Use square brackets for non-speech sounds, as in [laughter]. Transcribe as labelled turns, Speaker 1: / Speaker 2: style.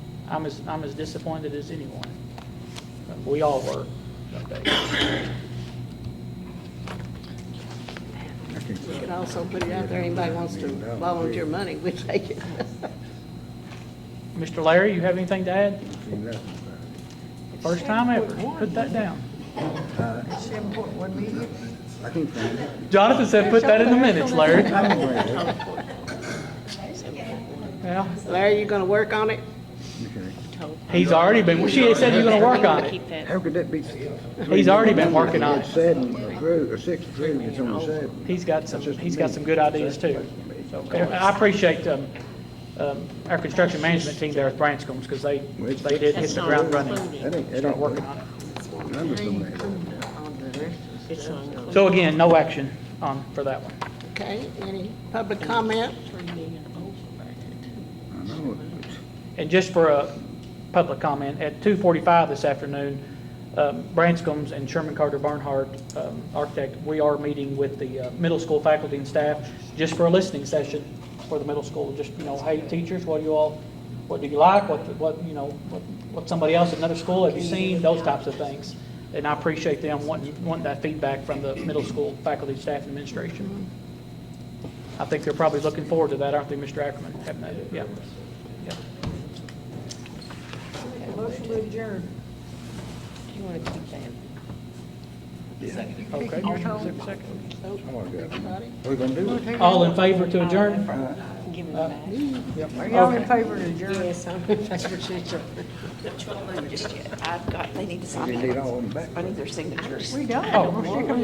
Speaker 1: I'm as, I'm as disappointed as anyone. We all were that day.
Speaker 2: We can also put it out there, anybody wants to volunteer money, we take it. [laughs]
Speaker 1: Mr. Larry, you have anything to add? First time ever, put that down.
Speaker 3: I can find it.
Speaker 1: Jonathan said, put that in the minutes, Larry.
Speaker 3: I will find it.
Speaker 1: Well,
Speaker 2: Larry, you gonna work on it?
Speaker 3: Okay.
Speaker 1: he's already been, she said you're gonna work on it.
Speaker 3: How could that be?
Speaker 1: He's already been working on it.
Speaker 3: Seven approved, or six approved, it's only seven.
Speaker 1: He's got some, he's got some good ideas too. So I appreciate, um, um, our construction management team there at Branscoms, because they, they did hit the ground running,
Speaker 3: That ain't, that
Speaker 1: start
Speaker 3: ain't
Speaker 1: working on
Speaker 3: working.
Speaker 1: it.
Speaker 3: Numbers don't add up.
Speaker 1: So again, no action on, for that one.
Speaker 2: Okay, any public comment?
Speaker 3: I know. it,
Speaker 1: And just for a public comment, at 2:45 this afternoon, um, Branscoms and Sherman Carter Barnhart um, Architect, we are meeting with the uh, middle school faculty and staff just for a listening session for the middle school, just, you know, hey, teachers, what do you all, what do you like, what, what, you know, what what somebody else at another school have you seen, those types of things. And I appreciate them wanting, wanting that feedback from the middle school faculty, staff, and administration. I think they're probably looking forward to that, aren't they, Mr. Ackerman? Haven't they? Yeah. Yeah.
Speaker 4: Motion to adjourn.
Speaker 2: You wanna keep that?
Speaker 1: Okay.
Speaker 3: I wanna go.
Speaker 2: Everybody?
Speaker 3: What we gonna do? it?
Speaker 1: All in favor to adjourn?
Speaker 2: Give it back.
Speaker 4: Are y'all in favor of adjourn?
Speaker 2: Yes, I'm in favor of adjourn.
Speaker 5: Just yet. I've got, they need to sign
Speaker 3: We
Speaker 5: it.
Speaker 3: need all of them back.
Speaker 5: I need their signatures.
Speaker 4: We done.
Speaker 1: Oh,
Speaker 4: We're
Speaker 1: well.
Speaker 4: sticking